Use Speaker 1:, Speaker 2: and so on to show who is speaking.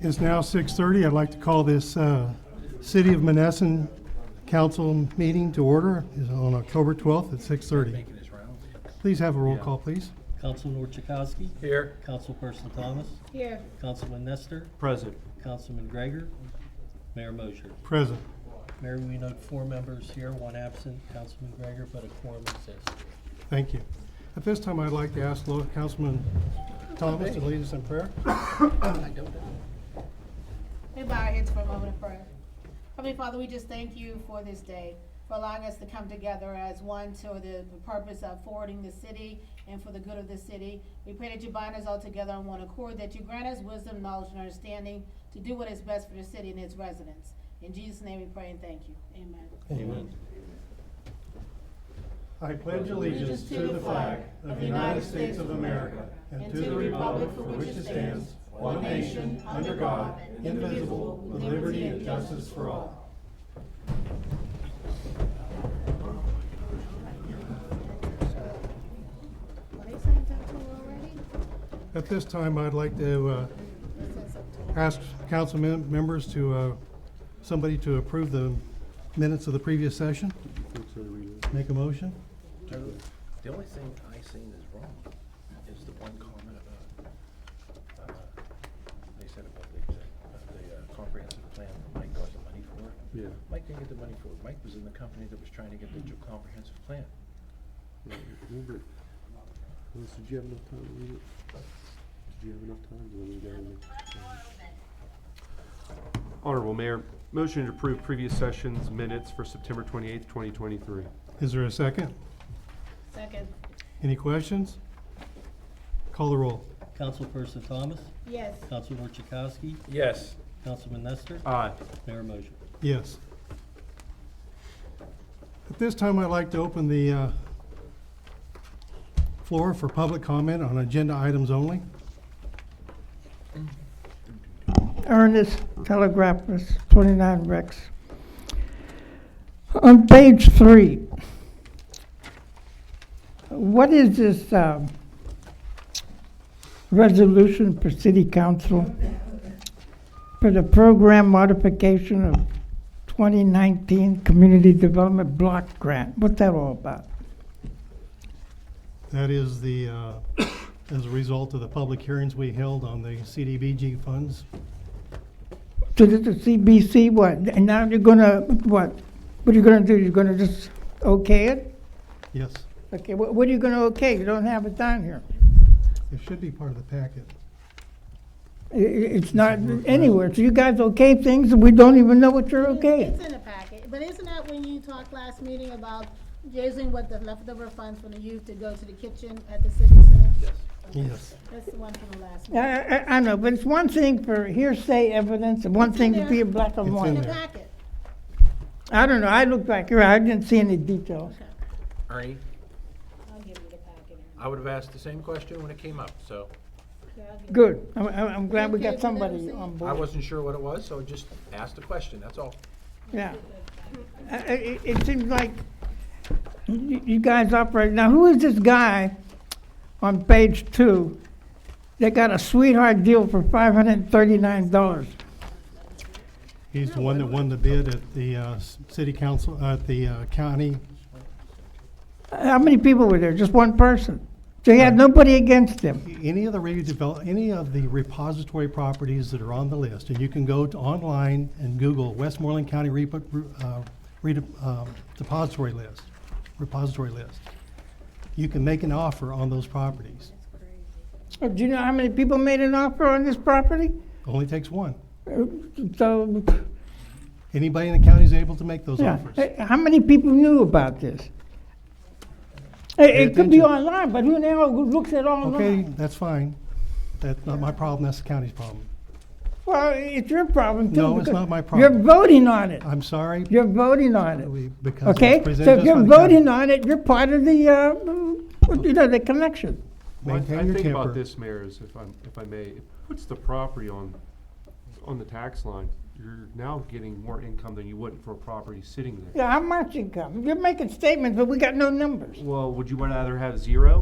Speaker 1: It's now 6:30. I'd like to call this uh, City of Monessen Council meeting to order It's on October 12th at 6:30.
Speaker 2: Making his rounds.
Speaker 1: Please have a roll call, please.
Speaker 3: Councilman Orchakowski.
Speaker 2: Here.
Speaker 3: Councilperson Thomas.
Speaker 4: Here,
Speaker 3: Councilman Nestor.
Speaker 5: Present.
Speaker 3: Councilman Gregor. Mayor Mosher.
Speaker 1: Present.
Speaker 3: Mayor, we note four members here, one absent, Councilman Gregor, but a quorum exists.
Speaker 1: Thank you. At this time, I'd like to ask Lord Councilman Thomas to lead us in prayer.
Speaker 4: we bow our heads for a moment of prayer. Heavenly Father, we just thank you for this day, for allowing us to come together as one to the the purpose of forwarding the city and for the good of the city. We pray that you bind us all together on one accord, that you grant us wisdom, knowledge, and understanding to do what is best for the city and its residents. In Jesus' name we pray and thank you. Amen.
Speaker 3: Amen.
Speaker 1: I pledge allegiance to the flag of the United States of America and to the republic for which it stands, one nation, under God, indivisible, with liberty and justice for all.
Speaker 4: Are they saying that too already?
Speaker 1: At this time, I'd like to uh,
Speaker 4: It says up to-
Speaker 1: ask council mem- members to, uh, somebody to approve the minutes of the previous session. Make a motion.
Speaker 2: The only thing I seen is wrong is the one comment about, uh, they said about the, exec- uh, the uh, comprehensive plan that Mike got the money for.
Speaker 5: Yeah.
Speaker 2: Mike didn't get the money for it. Mike was in the company that was trying to get the comprehensive plan.
Speaker 5: Remember, Liz, did you have enough time to read it? Did you have enough time? Do you want me to go over it? Honorable Mayor, motion to approve previous session's minutes for September twenty-eighth, twenty twenty-three.
Speaker 1: Is there a second?
Speaker 4: Second,
Speaker 1: Any questions? Call the roll.
Speaker 3: Councilperson Thomas.
Speaker 4: yes,
Speaker 3: Councilman Orchakowski.
Speaker 2: Yes.
Speaker 3: Councilman Nestor.
Speaker 5: Aye.
Speaker 3: Mayor Mosher.
Speaker 1: Yes. At this time, I'd like to open the uh, floor for public comment on agenda items only.
Speaker 6: Ernest Telegraphus, 29 Rex. On page three, what is this um, resolution for city council for the program modification of 2019 Community Development Block Grant? What's that all about?
Speaker 1: That is the, uh, as a result of the public hearings we held on the CDBG funds.
Speaker 6: So this is CBC, what, and now you're gonna, what, what are you gonna do? You're gonna just okay it?
Speaker 1: Yes,
Speaker 6: Okay, what, what are you gonna okay? You don't have it down here.
Speaker 1: it should be part of the packet.
Speaker 6: I- i- it's not anywhere. So you guys okay things and we don't even know what you're okay.
Speaker 4: It's in the packet, but isn't that when you talked last meeting about using what the leftover funds from the youth to go to the kitchen at the city center?
Speaker 1: Yes.
Speaker 4: That's the one from the last
Speaker 6: I,
Speaker 4: meeting.
Speaker 6: I, I know, but it's one thing for hearsay evidence and one
Speaker 4: It's in
Speaker 6: thing to be
Speaker 4: there.
Speaker 6: in black
Speaker 1: It's
Speaker 6: and
Speaker 1: in
Speaker 4: In the
Speaker 6: white.
Speaker 1: there.
Speaker 4: packet.
Speaker 6: I don't know. I looked back here. I didn't see any details.
Speaker 2: Ernie,
Speaker 4: I'll give you the packet.
Speaker 2: I would have asked the same question when it came up, so
Speaker 4: Okay, I'll give you-
Speaker 6: Good. I'm, I'm I'm glad we
Speaker 4: Okay, we
Speaker 6: got
Speaker 4: never
Speaker 6: somebody
Speaker 4: see
Speaker 6: on
Speaker 2: I
Speaker 6: board.
Speaker 2: wasn't sure what it was, so I just asked the question, that's all.
Speaker 6: Yeah. I, I, it- it seems like you, you guys operate. Now, who is this guy on page two that got a sweetheart deal for five hundred and thirty-nine dollars?
Speaker 1: He's the one that won the bid at the uh, s- city council, at the uh, county.
Speaker 6: How many people were there? Just one person. So he had nobody against him.
Speaker 1: Any of the redevelop, any of the repository properties that are on the list, and you can go to online and Google Westmoreland County Repo- Re- uh, Rede- um, Depository List, repository list. You can make an offer on those properties.
Speaker 6: Oh, Do you know how many people made an offer on this property?
Speaker 1: Only takes one.
Speaker 6: Uh, So,
Speaker 1: Anybody in the county is able to make those
Speaker 6: yeah,
Speaker 1: offers.
Speaker 6: Uh, how many people knew about this? It, it could be
Speaker 1: attention.
Speaker 6: online, but who now looks at
Speaker 1: Okay,
Speaker 6: online?
Speaker 1: that's fine. That's not my problem, that's the county's problem.
Speaker 6: Well, it's your problem too.
Speaker 1: No, it's
Speaker 6: because
Speaker 1: not my
Speaker 6: You're
Speaker 1: problem.
Speaker 6: voting on it.
Speaker 1: I'm sorry,
Speaker 6: You're voting on it.
Speaker 1: we- because
Speaker 6: Okay,
Speaker 1: it's
Speaker 6: so
Speaker 1: presented to us by
Speaker 6: if you're
Speaker 1: the county.
Speaker 6: voting on it, you're part of the, uh, you know, the connection.
Speaker 1: Maintain your
Speaker 5: I think about
Speaker 1: temper.
Speaker 5: this, Mayor, is if I'm, if I may, what's the property on, on the tax line? You're now getting more income than you would for a property sitting there.
Speaker 6: Yeah, how much income? You're making statements, but we got no numbers.
Speaker 5: Well, would you rather have zero